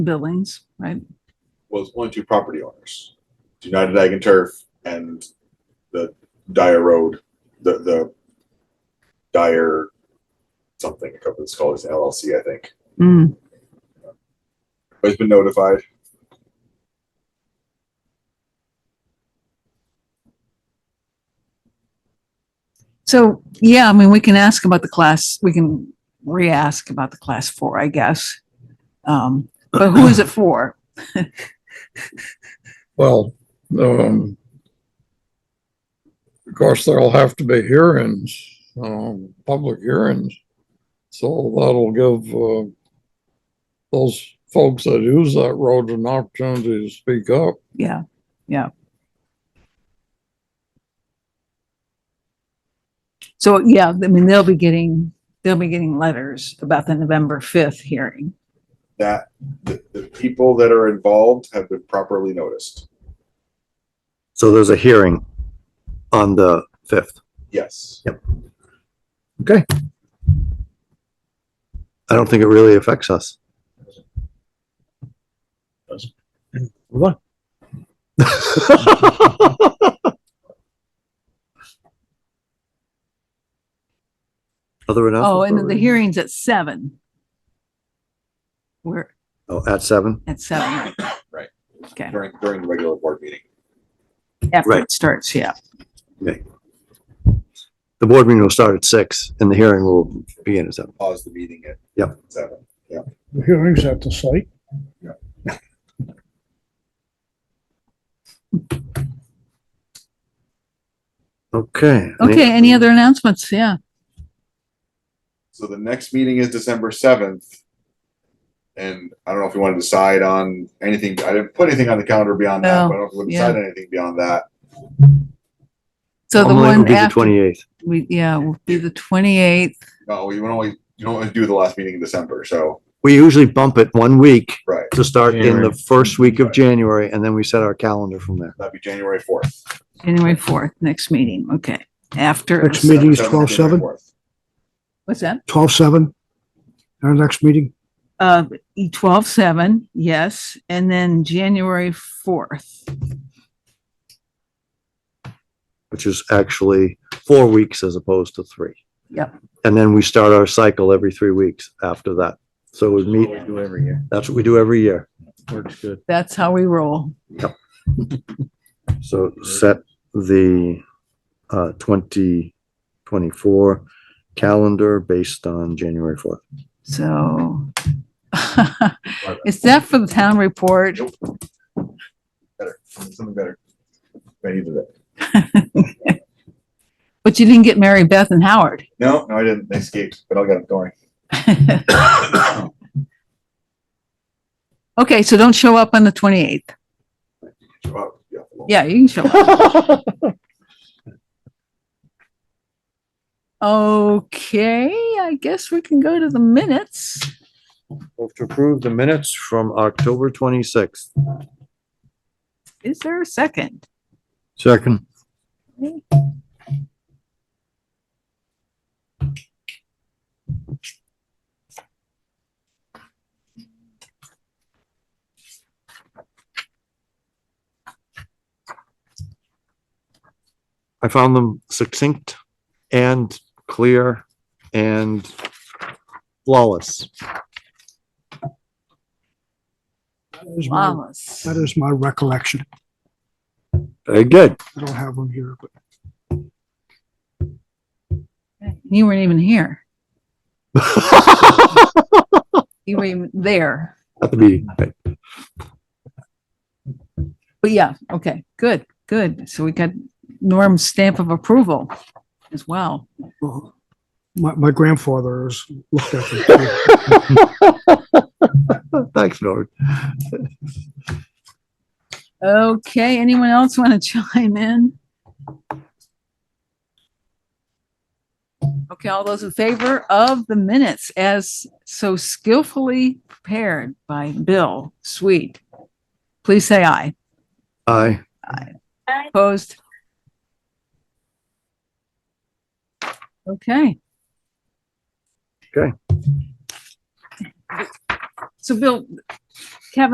Billings, right? was only two property owners, United Ag and Turf and the Dyer Road, the, the Dyer something, a couple of scholars LLC, I think. Mm, Has been notified. so, yeah, I mean, we can ask about the class, we can re-ask about the class four, I guess. Um, but who is it for? Well, um, of course, there'll have to be hearings, um, public hearings. So that'll give, uh, those folks that use that road an opportunity to speak up. Yeah, yeah. So, yeah, I mean, they'll be getting, they'll be getting letters about the November fifth hearing. That, the, the people that are involved have been properly noticed. So there's a hearing on the fifth. Yes. I don't think it really affects us. What? Other announcements? Oh, and then the hearing's at seven. We're Oh, at seven? at seven, right? Right. Okay, During, during the regular board meeting. after Right. it starts, yeah. The board meeting will start at six and the hearing will begin at seven. Pause the meeting at. Yep. Seven. The hearings at the site. Okay. Okay, any other announcements? Yeah. So the next meeting is December seventh. And I don't know if you want to decide on anything. I didn't put anything on the calendar beyond that, No, but I don't know if we'll decide anything beyond that. So the Normally it would one be the after, Twenty-eighth. we, yeah, will be the twenty-eighth. No, you don't always, you don't always do the last meeting in December, so, We usually bump it one week right, to start in the January. first week of January and then we set our calendar from there. that'd be January fourth. January fourth, next meeting, okay, after, Next meeting is 12/7? what's that? twelve seven, our next meeting, Uh, twelve, seven, yes, and then January fourth. which is actually four weeks as opposed to three. Yep. And then we start our cycle every three weeks after that. So we meet, Do every year. that's what we do every year. Works good. That's how we roll. So set the uh twenty twenty-four calendar based on January fourth. So is that for the town report? Better, something better. I needed it. But you didn't get Mary Beth and Howard. No, no, I didn't. They escaped, but I'll get them going. Okay, so don't show up on the twenty-eighth. Yeah, you can show up. Okay, I guess we can go to the minutes. Hope to approve the minutes from October twenty-sixth. Is there a second? Second. I found them succinct and clear and flawless. that is my, Flawless. that is my recollection. Very good. I don't have them here, but You weren't even here. You were even there. At the meeting, right. But yeah, okay, good, good. So we got Norm's stamp of approval as well. well, my, my grandfather has looked at them. too. Thanks, Norm. Okay, anyone else want to chime in? Okay, all those in favor of the minutes as so skillfully prepared by Bill Sweet, please say aye. Aye. Opposed? Okay. Okay. So Bill,